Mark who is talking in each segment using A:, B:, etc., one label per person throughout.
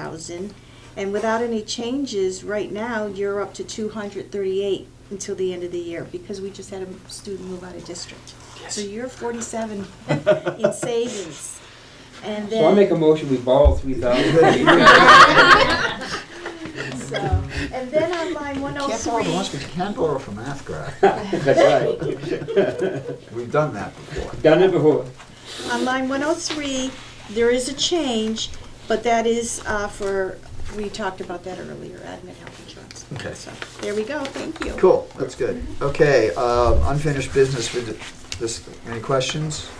A: thousand. And without any changes, right now, you're up to two hundred thirty-eight until the end of the year, because we just had a student move out of district. So you're forty-seven in savings. And then.
B: So I make a motion, we borrow three thousand.
A: So, and then on line one oh
C: Can't borrow the ones we
A: three,
C: can borrow from Mathgraph.
B: That's right.
C: We've done that before.
B: Done it before.
A: on line one oh three, there is a change, but that is, uh, for, we talked about that earlier, admin health insurance.
C: Okay.
A: So, there we go, thank you.
C: Cool, that's good. Okay, um, unfinished business with the- this, any questions?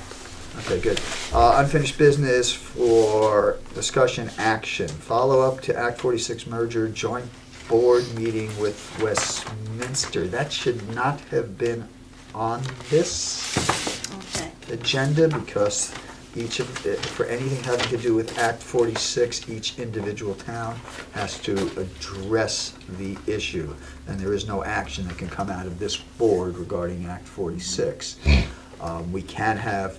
C: Okay, good. Uh, Unfinished business for discussion action. Follow-up to Act 46 merger, joint board meeting with Westminster. That should not have been on this
A: Okay,
C: agenda because each of, the- for anything having to do with Act 46, each individual town has to address the issue. And there is no action that can come out of this board regarding Act 46. Um, We can have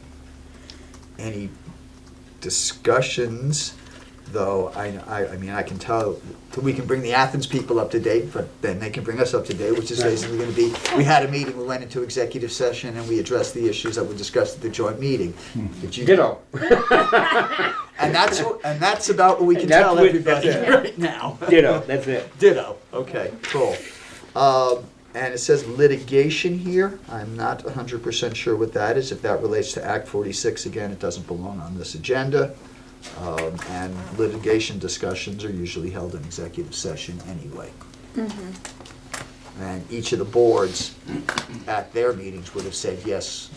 C: any discussions, though, I, I, I mean, I can tell, we can bring the Athens people up to date, but then they can bring us up to date, which is basically gonna be, we had a meeting, we went into executive session, and we addressed the issues that were discussed at the joint meeting. Did you?
B: Ditto.
C: And that's, wh- and that's about what we can
B: And that's
C: tell
B: what-
C: everybody
B: that's it.
C: right now.
B: Ditto, that's it.
C: Ditto, okay, cool. Um, and it says litigation here, I'm not hundred percent sure what that is, if that relates to Act forty-six, again, it doesn't belong on this agenda. Um, and litigation discussions are usually held in executive session anyway.
B: Mm-hmm.
C: And each of the boards at their meetings would have said yes,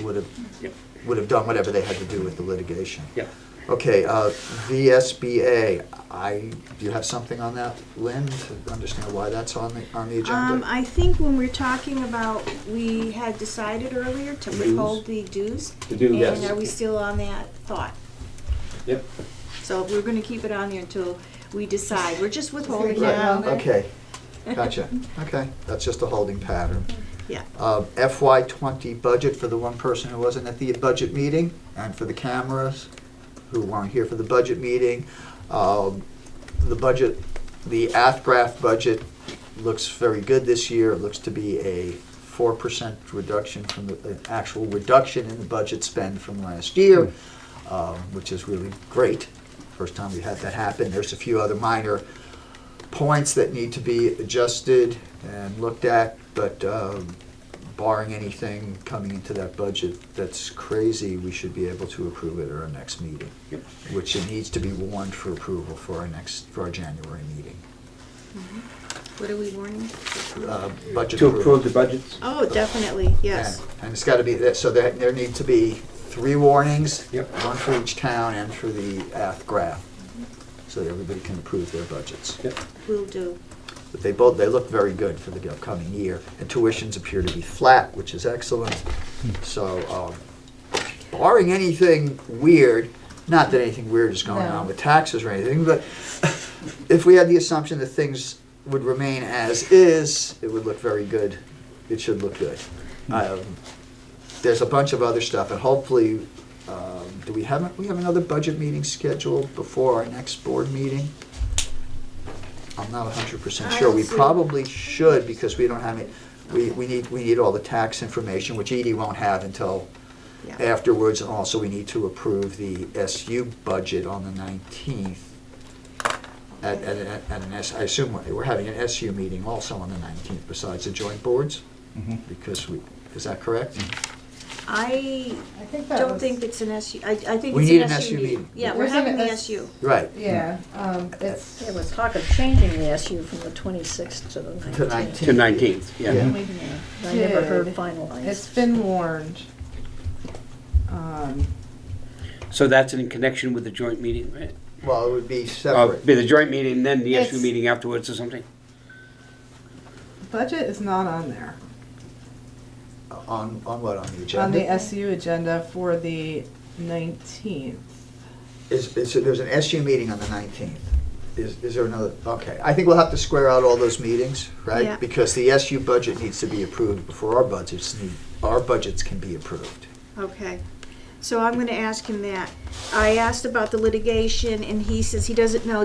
C: would have,
B: Yep.
C: would have done whatever they had to do with the litigation.
B: Yep.
C: Okay, uh, VSBA, I, do you have something on that, Lynn, to understand why that's on the, on the
A: um,
C: agenda?
A: I think when we're talking about, we had decided earlier to
C: Dues.
A: withhold the dues.
B: The dues, yes.
A: And are we still on that thought?
B: Yep.
A: So we're gonna keep it on there until we decide, we're just withholding
C: Right,
A: now.
C: Okay, gotcha, okay, that's just a holding pattern.
A: Yeah.
C: Um, FY twenty budget for the one person who wasn't at the budget meeting, and for the cameras who weren't here for the budget meeting. Um, The budget, the AFGRAF budget looks very good this year, it looks to be a four percent reduction from the, an actual reduction in the budget spend from last year, um, which is really great, first time we've had that happen, there's a few other minor points that need to be adjusted and looked at, but um, barring anything coming into that budget that's crazy, we should be able to approve it at our next meeting,
B: Yep.
C: which it needs to be warned for approval for our next, for our January meeting.
A: Mm-hmm. What are we warning?
C: Uh, Budget
B: To approve
C: approval.
B: the budgets?
A: Oh, definitely, yes.
C: And- And it's got to be, that- so there, there need to be three warnings.
B: Yep.
C: One for each town and for the AFGRAF, so that everybody can approve their budgets.
B: Yep.
A: Will do.
C: But they both, they look very good for the upcoming year. And tuitions appear to be flat, which is excellent. So um, barring anything weird, not that anything weird is going on with taxes or anything, but if we had the assumption that things would remain as is, it would look very good. It should look good. Um, There's a bunch of other stuff, and hopefully, um, do we have, we have another budget meeting scheduled before our next board meeting? I'm not hundred percent
A: I
C: sure.
A: don't
C: We
A: see-
C: probably should, because we don't have it, we, we need, we need all the tax information, which Edie won't have until
A: Yeah.
C: afterwards, and also we need to approve the SU budget on the nineteenth. At, at, at at an S, I assume we're- we're having an SU meeting also on the nineteenth besides the joint boards?
B: Mm-hmm.
C: Because we, is that correct?
A: I
D: I think that
A: don't
D: was-
A: think it's an SU, I, I think
C: We
A: it's
C: need
A: an
C: an
A: SU
C: SU
A: meeting.
C: meeting.
A: Yeah, we're
D: There's an
A: having the
D: S-
A: SU.
C: Right.
D: Yeah, um, it's,
E: There was talk of changing the SU from the 26th to the 19th.
C: To nineteen.
B: To nineteenth, yeah.
C: Yeah.
E: I never heard
D: Dude. it's
E: finalized.
D: been warned. Um,
B: So that's in connection with the joint meeting, right?
C: Well, it would be
B: Uh,
C: separate.
B: Be the joint meeting, then the SU
D: It's-
B: meeting afterwards or something?
D: budget is not on there,
C: On, on what, on the
D: on the
C: agenda?
D: SU agenda for the nineteenth.
C: Is, is, there's an SU meeting on the nineteenth. Is, is there another, okay. I think we'll have to square out all those meetings,
A: Yeah.
C: right? Because the SU budget needs to be approved before our budgets need, our budgets can be approved.
A: Okay, so I'm gonna ask him that. I asked about the litigation, and he says he doesn't know